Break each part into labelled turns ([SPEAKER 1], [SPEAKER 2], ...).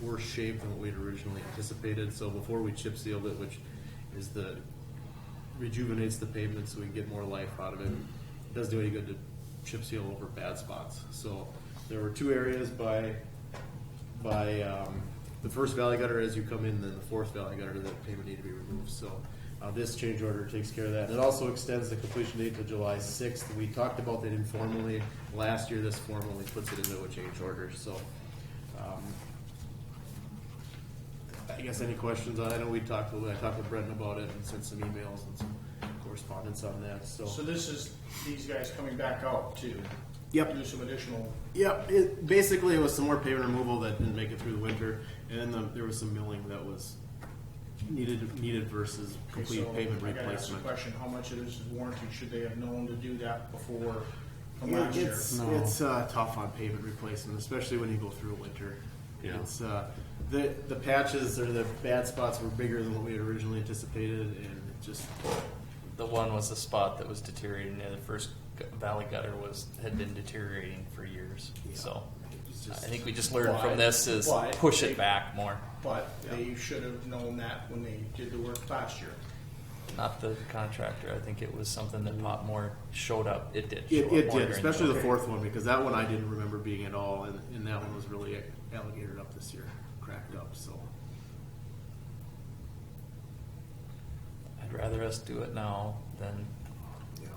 [SPEAKER 1] worse shape than what we'd originally anticipated. So before we chip sealed it, which is the rejuvenates the pavement so we can get more life out of it. It doesn't do any good to chip seal over bad spots. So there were two areas by by um, the first valley gutter as you come in, then the fourth valley gutter that pavement need to be removed. So uh, this change order takes care of that. And it also extends the completion date to July sixth. We talked about that informally last year. This formally puts it into a change order. So. Um, I guess any questions on, I know we talked, a little- I talked with Brendan about it and sent some emails and some correspondence on that,
[SPEAKER 2] So
[SPEAKER 1] so.
[SPEAKER 2] this is these guys coming back out to
[SPEAKER 1] Yep.
[SPEAKER 2] do some additional.
[SPEAKER 1] Yep, it, basically it was some more pavement removal that didn't make it through the winter, and then the- there was some milling that was needed, needed versus complete
[SPEAKER 2] so
[SPEAKER 1] pavement
[SPEAKER 2] I gotta ask the
[SPEAKER 1] replacement.
[SPEAKER 2] question: How much of this is warranty? Should they have known to do that before from
[SPEAKER 1] Yeah,
[SPEAKER 2] last year?
[SPEAKER 1] It's, it's uh, tough on pavement replacement, especially when you go through winter.
[SPEAKER 3] Yeah.
[SPEAKER 1] It's, uh, the, the patches or the bad spots were bigger than what we had originally anticipated, and it just,
[SPEAKER 4] The one was the spot that was deteriorating. and The first gu- valley gutter was had been deteriorating for years. So
[SPEAKER 1] it's
[SPEAKER 4] I
[SPEAKER 1] just.
[SPEAKER 4] think we just learned from
[SPEAKER 2] Why?
[SPEAKER 4] this is
[SPEAKER 2] Why?
[SPEAKER 4] push it back more,
[SPEAKER 2] But they should have known that when they did the work last year.
[SPEAKER 4] not the contractor. I think it was something that Pop Moore showed up. It did.
[SPEAKER 1] It,
[SPEAKER 4] show
[SPEAKER 1] it
[SPEAKER 4] up more
[SPEAKER 1] did,
[SPEAKER 4] during
[SPEAKER 1] especially the
[SPEAKER 4] winter.
[SPEAKER 1] fourth one, because that one I didn't remember being at all, and, and that one was really alligator up this year, cracked up, so.
[SPEAKER 4] I'd rather us do it now than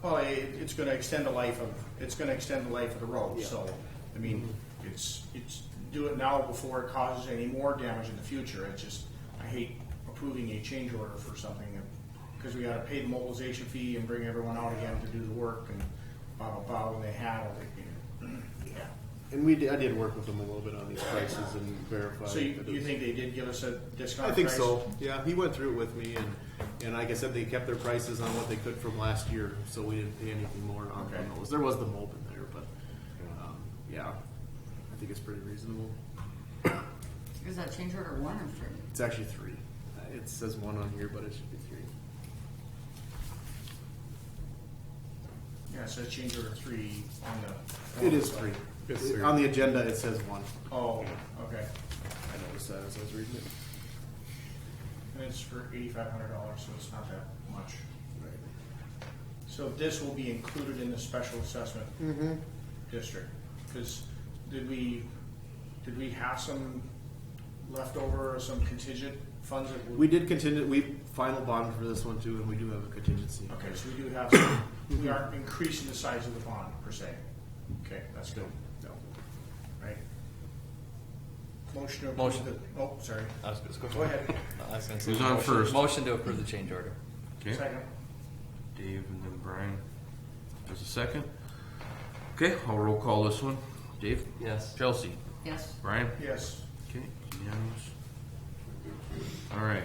[SPEAKER 2] Well, it, it's going to extend the life of it's going to extend the life of the road.
[SPEAKER 1] Yeah.
[SPEAKER 2] So, I mean, it's it's do it now before it causes any more damage in the future. It's just I hate approving a change order for something because we got to pay the mobilization fee and bring everyone out again to do the work and blah blah blah when they have it. You know.
[SPEAKER 1] And we, did- I did work with them a little bit on these prices and verify.
[SPEAKER 2] So you,
[SPEAKER 1] that it
[SPEAKER 2] you
[SPEAKER 1] was-
[SPEAKER 2] think they did give us a discount?
[SPEAKER 1] I think
[SPEAKER 2] price?
[SPEAKER 1] so, yeah, he went through it with me, and, and like I said, they kept their prices on what they could from last year, so we didn't pay anything more on
[SPEAKER 2] Okay.
[SPEAKER 1] on those, there was the mold in there, but, um, yeah, I think it's pretty reasonable.
[SPEAKER 5] Is that change order one or three?
[SPEAKER 1] It's actually three, Uh, it says one on here, but it should be three.
[SPEAKER 2] Yeah, so change order three on the.
[SPEAKER 1] It is three.
[SPEAKER 3] Yes,
[SPEAKER 1] It-
[SPEAKER 3] sir.
[SPEAKER 1] On the agenda, it says one.
[SPEAKER 2] Oh, okay.
[SPEAKER 1] I noticed that as I was reading it.
[SPEAKER 2] And it's for eighty-five hundred dollars, so it's not that much. So this will be included in the special assessment district, because did we, did we have some leftover, or some contingent funds that?
[SPEAKER 1] We did contingent, we final bond for this one too, and we do have a contingency.
[SPEAKER 2] Okay, so we do have, some we aren't increasing the size of the bond per se. Okay, that's good,
[SPEAKER 1] No.
[SPEAKER 2] right? Motion to approve
[SPEAKER 4] Motion.
[SPEAKER 2] the, oh, sorry,
[SPEAKER 4] I was, let's go,
[SPEAKER 2] go ahead,
[SPEAKER 4] I was gonna say
[SPEAKER 3] Who's on
[SPEAKER 4] motion-
[SPEAKER 3] first?
[SPEAKER 4] Motion to approve the change order.
[SPEAKER 3] Okay,
[SPEAKER 2] second.
[SPEAKER 3] Dave and then Brian. There's a second. Okay, I'll roll call this one. Dave?
[SPEAKER 4] Yes.
[SPEAKER 3] Chelsea?
[SPEAKER 5] Yes.
[SPEAKER 3] Brian?
[SPEAKER 2] Yes,
[SPEAKER 3] Okay, unanimous. All right.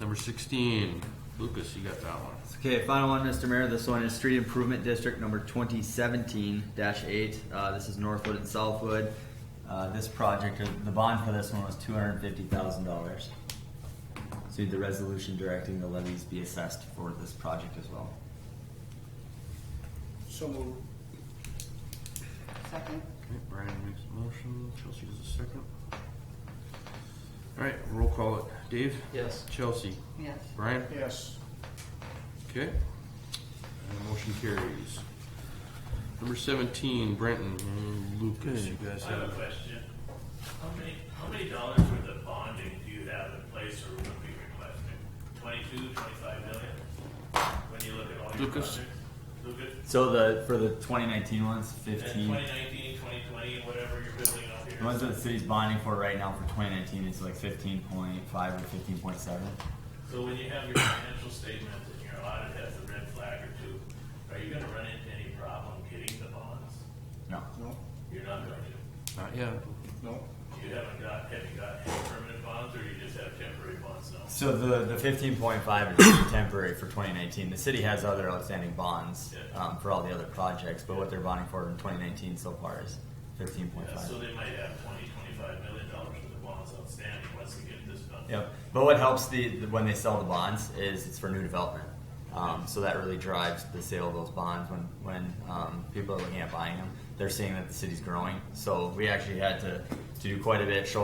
[SPEAKER 3] Number sixteen, Lucas, you got that one.
[SPEAKER 6] Okay, final one, Mr. Mayor. This one is Street Improvement District number twenty seventeen eight. Uh, this is Northwood and Southwood. Uh, this project, uh, the bond for this one was two hundred and fifty thousand dollars. So you need the resolution directing the levies be assessed for this project as well.
[SPEAKER 2] so moved.
[SPEAKER 5] Second?
[SPEAKER 3] Okay, Brian makes a motion, Chelsea does a second. All right, roll call it. Dave?
[SPEAKER 4] Yes.
[SPEAKER 3] Chelsea?
[SPEAKER 5] Yes.
[SPEAKER 3] Brian?
[SPEAKER 2] yes.
[SPEAKER 3] Okay. And motion carries. Number seventeen, Brenton and Lucas, you guys
[SPEAKER 7] I have a
[SPEAKER 3] have.
[SPEAKER 7] question. How many, how many dollars worth of bonding do you have in place or would be requested? Twenty-two, twenty-five million? When you look at all your
[SPEAKER 3] Lucas.
[SPEAKER 7] projects? Lucas?
[SPEAKER 6] So the, for the twenty nineteen ones,
[SPEAKER 7] And
[SPEAKER 6] fifteen.
[SPEAKER 7] twenty nineteen, twenty twenty, whatever you're building up here?
[SPEAKER 6] The ones that the city's bonding for right now for twenty nineteen is like fifteen point five or fifteen point seven.
[SPEAKER 7] So when you have your financial statements and your audit has a red flag or two, are you gonna run into any problem getting the bonds?
[SPEAKER 6] No,
[SPEAKER 2] No,
[SPEAKER 7] You're not going to.
[SPEAKER 3] Not yet.
[SPEAKER 2] no.
[SPEAKER 7] You haven't got, have you got any permanent bonds or you just have temporary bonds now?
[SPEAKER 6] So the, the fifteen point five is temporary for twenty nineteen. The city has other outstanding bonds
[SPEAKER 7] Yeah.
[SPEAKER 6] um, for all the other projects, but what they're bonding for in twenty nineteen so far is fifteen point
[SPEAKER 7] Yeah, so
[SPEAKER 6] five.
[SPEAKER 7] they might have twenty, twenty-five million dollars worth of bonds outstanding once they get this done.
[SPEAKER 6] Yep. But what helps the, the when they sell the bonds is it's for new development. Um, so that really drives the sale of those bonds when when um, people are looking at buying them. They're seeing that the city's growing. So we actually had to, to do quite a bit, show